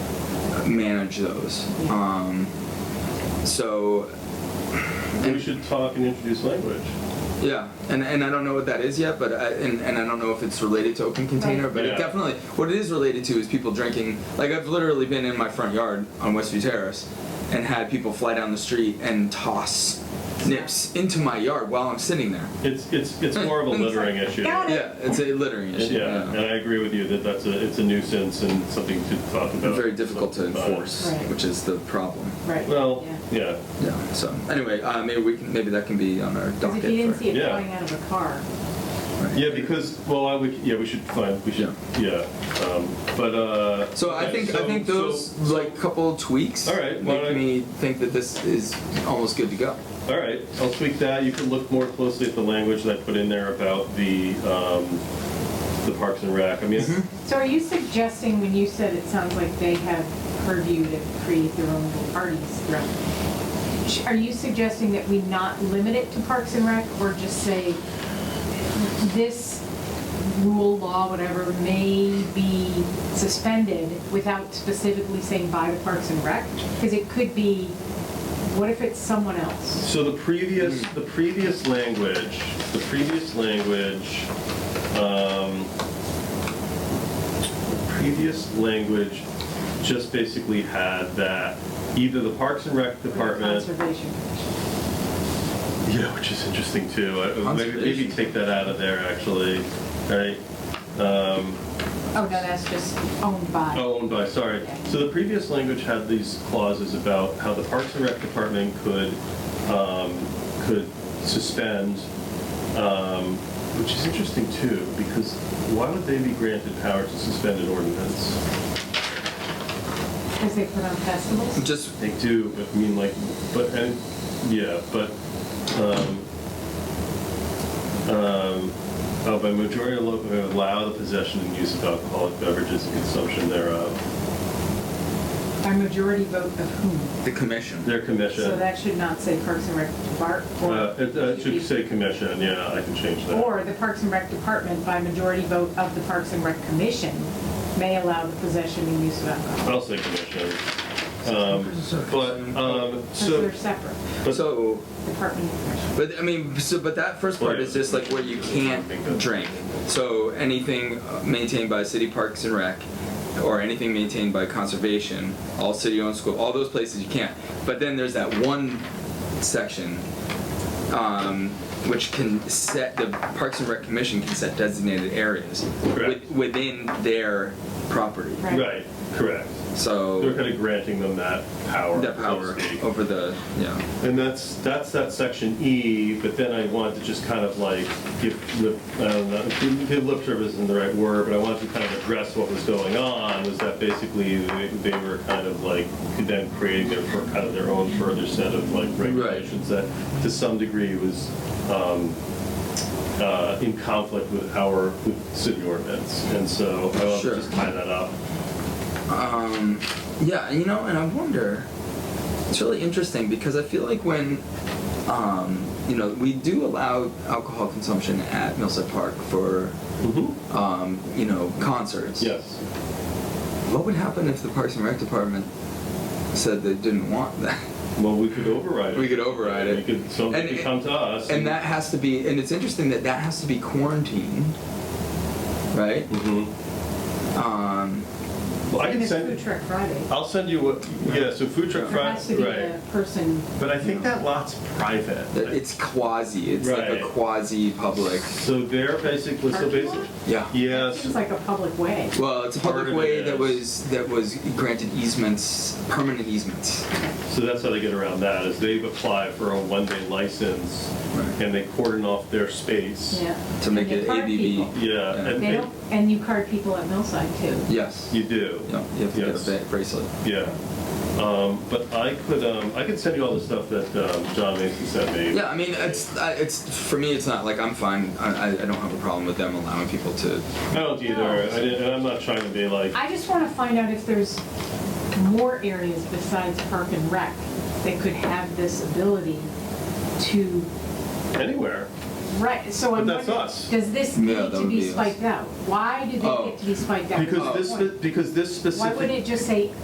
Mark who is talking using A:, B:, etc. A: manage those. Um, so,
B: We should talk and introduce language.
A: yeah, and, and I don't know what that is yet, but I, and, and I don't know if it's related to open container,
B: Right.
A: but
B: Yeah.
A: it definitely what it is related to is people drinking. Like I've literally been in my front yard on Westview Terrace, and had people fly down the street and toss nips into my yard while I'm sitting there.
B: It's, it's, it's more of a littering issue.
C: Hmm. Got it.
A: Yeah, it's a littering issue.
B: Yeah, and I agree with you that that's a, it's a nuisance and something to talk about.
A: very difficult to
B: Something about it.
A: enforce,
C: Right.
A: which is the problem.
C: Right.
B: Well, yeah,
A: Yeah. So anyway, uh, maybe we can, maybe that can be on our
C: Because
A: docket.
C: if you didn't
A: for-
C: see it
B: Yeah.
C: going out of a car.
A: right.
B: yeah, because, well, I would, yeah, we should find, we should, yeah, um, but, uh.
A: So I
B: okay,
A: think I
B: so-
A: think those
B: so-
A: like couple tweaks
B: All right, why
A: make
B: don't I-
A: me think that this is almost good to go.
B: All right, I'll tweak that. You can look more closely at the language that I put in there about the, um, the Parks and Rec. I mean,
A: Mm-hmm.
C: So are you suggesting, when you said it sounds like they have purview to create their own little parties throughout? sh- Are you suggesting that we not limit it to Parks and Rec or just say this rule, law, whatever, may be suspended without specifically saying by the Parks and Rec? Because it could be, what if it's someone else?
B: So the previous, the previous language, the previous language, um, the previous language just basically had that either the Parks and Rec
C: Or the
B: Department,
C: Conservation Commission.
B: yeah, which is interesting too. I- Maybe, maybe
A: Conservation.
B: take that out of there actually, right? Um,
C: Oh, no, that's just owned by.
B: Oh, owned by, sorry. So the previous language had these clauses about how the Parks and Rec Department could, um, could suspend, um, which is interesting too, because why would they be granted power to suspend an ordinance?
C: Because they put on festivals?
A: Just
B: They do, but I mean like, but, and, yeah, but, um, um, oh, by majority of local, allow the possession and use of alcoholic beverages and consumption thereof.
C: By majority vote of whom?
A: the commission.
B: Their commission.
C: So that should not say Parks and Rec Depart, or.
B: Uh, It uh, it should say uh, commission, yeah, I can change that.
C: Or the Parks and Rec Department by majority vote of the Parks and Rec Commission may allow the possession and use of alcohol.
B: I'll say commission. Um, But, um,
C: So
B: so,
C: they're separate,
B: but-
A: so,
C: Department and Commission.
A: but I mean, so but that first part is just like where you can't drink. So anything uh, maintained by city parks and rec, or anything maintained by conservation, all city-owned school, all those places you can't. But then there's that one section, um, which can set the Parks and Rec Commission can set designated areas
B: Correct.
A: with, within their property.
C: Right.
B: right, correct. They're
A: So
B: kind of granting them that power.
A: that
B: so to
A: power
B: speak.
A: over the yeah.
B: And that's, that's that section E, but then I wanted to just kind of like give lip, I don't know, give lip service isn't the right word, but I wanted to kind of address what was going on, was that basically they they were kind of like, then creating their, fir- kind of their own further set of like regulations that to some degree was um, uh, in conflict with our, with city ordinance. And so I wanted
A: Sure.
B: to just tie that up.
A: Um, yeah, you know, and I wonder. It's really interesting because I feel like when, um, you know, we do allow alcohol consumption at Millside Park for,
B: Mm-hmm.
A: um, you know, concerts.
B: Yes.
A: What would happen if the Parks and Rec Department said they didn't want that?
B: Well, we could override it.
A: We could override it.
B: We could,
A: And
B: somebody could
A: it-
B: come to us.
A: And that has to be, and it's interesting that that has to be quarantined, right?
B: hmm
A: Um,
B: Well, I
C: And
B: can
C: it's
B: send.
C: Food Truck Friday.
B: I'll send you what. Yeah. So food truck
C: There has to
B: Friday.
C: be
B: Right.
C: a person,
B: But I think that lot's private.
A: that it's quasi, it's like a
B: Right.
A: quasi public.
B: so they're basically so
C: Parking lot?
B: basically.
A: Yeah.
B: Yes.
C: seems like a public way.
A: Well, it's a
B: Part
A: public
B: of
A: way
B: it
A: that
B: is-
A: was that was granted easements, permanent easements.
B: So that's how they get around that is they've applied for a one-day license
A: Right.
B: and they cordon off their space.
C: Yeah.
A: To make
C: And you
A: it
C: card
A: ABB.
C: people.
B: Yeah.
A: Yeah.
B: And,
C: They
B: and-
C: don't, and you card people at Millside too.
A: Yes.
B: you do.
A: Yeah, you have to
B: Yes.
A: get a ba- bracelet.
B: Yeah. Um, but I could um, I could send you all the stuff that um, John Mason sent me.
A: Yeah, I mean, it's I, it's for me, it's not like I'm fine. I, I I don't have a problem with them allowing people to.
B: I don't either. I didn't, and I'm not trying to be like.
C: I just want to find out if there's more areas besides Park and Rec that could have this ability to,
B: Anywhere.
C: right, so I'm
B: But that's
C: wondering,
B: us.
C: does this
A: Yeah,
C: need
A: that
C: to
A: would
C: be
A: be us.
C: spiked out? Why do they
A: Oh.
C: get to be spiked out?
B: Because
C: What's
B: this
C: the point?
B: because this specific.
C: Why wouldn't it just say